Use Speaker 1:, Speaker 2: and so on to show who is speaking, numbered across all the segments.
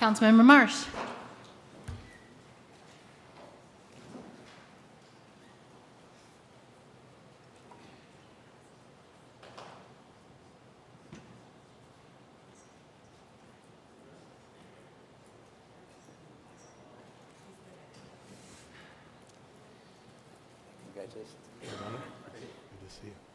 Speaker 1: Councilmember Marsh.
Speaker 2: You guys just-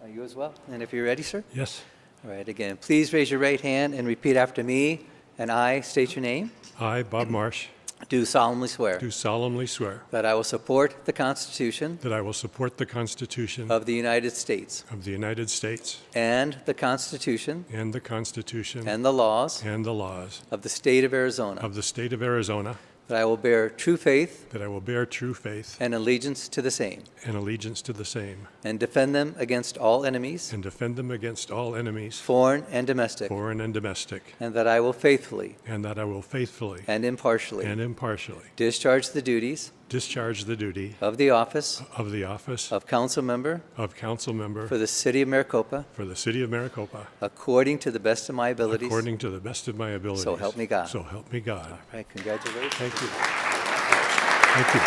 Speaker 2: Uh, You as well? And if you're ready, sir?
Speaker 3: Yes,
Speaker 2: All right, again, please raise your right hand and repeat after me, and I state your name,
Speaker 3: I, Bob Marsh,
Speaker 2: do solemnly swear
Speaker 3: do solemnly swear
Speaker 2: that I will support the Constitution
Speaker 3: that I will support the Constitution
Speaker 2: of the United States
Speaker 3: of the United States
Speaker 2: and the Constitution
Speaker 3: and the Constitution
Speaker 2: and the laws
Speaker 3: and the laws
Speaker 2: of the state of Arizona,
Speaker 3: of the state of Arizona,
Speaker 2: that I will bear true faith
Speaker 3: that I will bear true faith
Speaker 2: and allegiance to the same,
Speaker 3: and allegiance to the same,
Speaker 2: and defend them against all enemies,
Speaker 3: and defend them against all enemies,
Speaker 2: foreign and domestic,
Speaker 3: foreign and domestic,
Speaker 2: and that I will faithfully
Speaker 3: and that I will faithfully
Speaker 2: and impartially
Speaker 3: and impartially
Speaker 2: discharge the duties
Speaker 3: discharge the duty
Speaker 2: of the office
Speaker 3: of the office
Speaker 2: of council member
Speaker 3: of council member
Speaker 2: for the city of Maricopa
Speaker 3: for the city of Maricopa
Speaker 2: according to the best of my abilities.
Speaker 3: according to the best of my abilities.
Speaker 2: help me God.
Speaker 3: So help me God.
Speaker 2: All right, congratulations.
Speaker 3: Thank you. Thank you.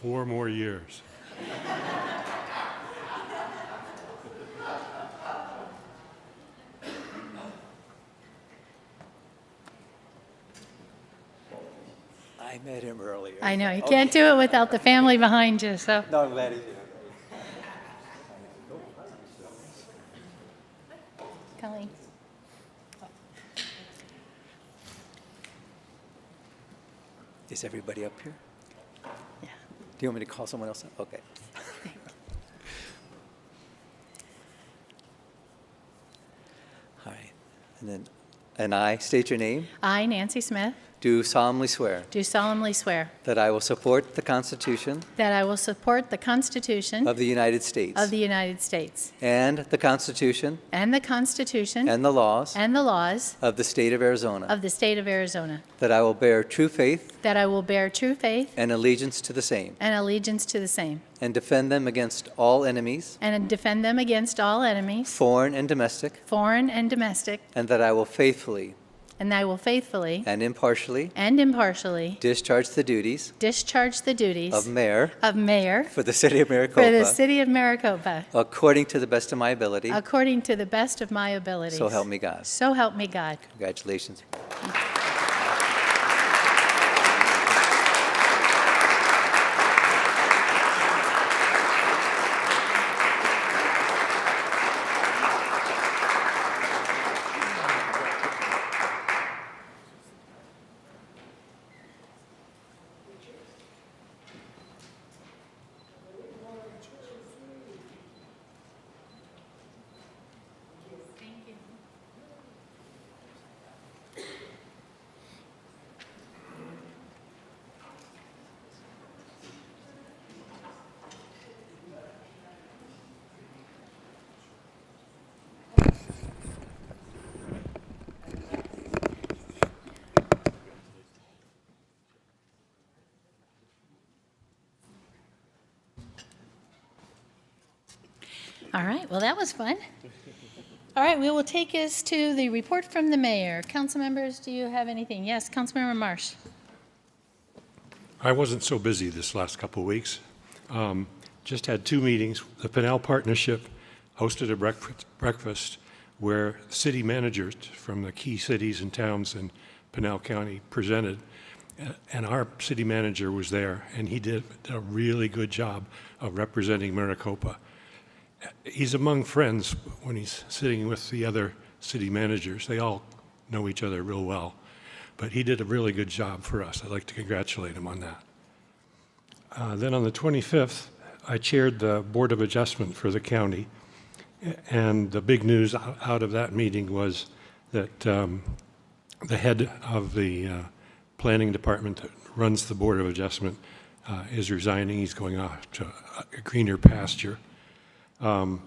Speaker 3: Four more years.
Speaker 2: I met him earlier.
Speaker 1: I know, you can't do it without the family behind you, so.
Speaker 2: No, I'm glad he's here.
Speaker 1: Colleen.
Speaker 2: Is everybody up here?
Speaker 1: Yeah.
Speaker 2: Do you want me to call someone else? up? Okay. All right. And then, and I state your name,
Speaker 1: I, Nancy Smith,
Speaker 2: do solemnly swear
Speaker 1: do solemnly swear
Speaker 2: that I will support the Constitution
Speaker 1: that I will support the Constitution
Speaker 2: of the United States
Speaker 1: of the United States
Speaker 2: and the Constitution
Speaker 1: and the Constitution
Speaker 2: and the laws
Speaker 1: and the laws
Speaker 2: of the state of Arizona,
Speaker 1: of the state of Arizona,
Speaker 2: that I will bear true faith
Speaker 1: that I will bear true faith
Speaker 2: and allegiance to the same,
Speaker 1: and allegiance to the same,
Speaker 2: and defend them against all enemies,
Speaker 1: and defend them against all enemies,
Speaker 2: foreign and domestic,
Speaker 1: foreign and domestic,
Speaker 2: and that I will faithfully
Speaker 1: and I will faithfully
Speaker 2: and impartially
Speaker 1: and impartially
Speaker 2: discharge the duties
Speaker 1: discharge the duties
Speaker 2: of mayor
Speaker 1: of mayor
Speaker 2: for the city of
Speaker 1: for the
Speaker 2: Maricopa
Speaker 1: city of Maricopa
Speaker 2: according to the best of my ability.
Speaker 1: according to the best of my abilities.
Speaker 2: So help me God.
Speaker 1: So help me God.
Speaker 2: Congratulations.
Speaker 1: All right, well, that was fun. All right, we will take us to the report from the mayor. Council members, do you have anything? Yes, Councilmember Marsh.
Speaker 3: I wasn't so busy this last couple of weeks. Um, Just had two meetings. The Pinal Partnership hosted a breakfast- breakfast where city managers from the key cities and towns in Pinal County presented, a- and our city manager was there, and he did a really good job of representing Maricopa. He's among friends when he's sitting with the other city managers. They all know each other real well. But he did a really good job for us. I'd like to congratulate him on that. Uh, Then on the 25th, I chaired the Board of Adjustment for the county. And the big news o- out of that meeting was that um, the head of the uh, planning department that runs the Board of Adjustment uh, is resigning. He's going off to a greener pasture. Um,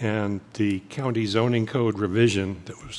Speaker 3: And the county zoning code revision that was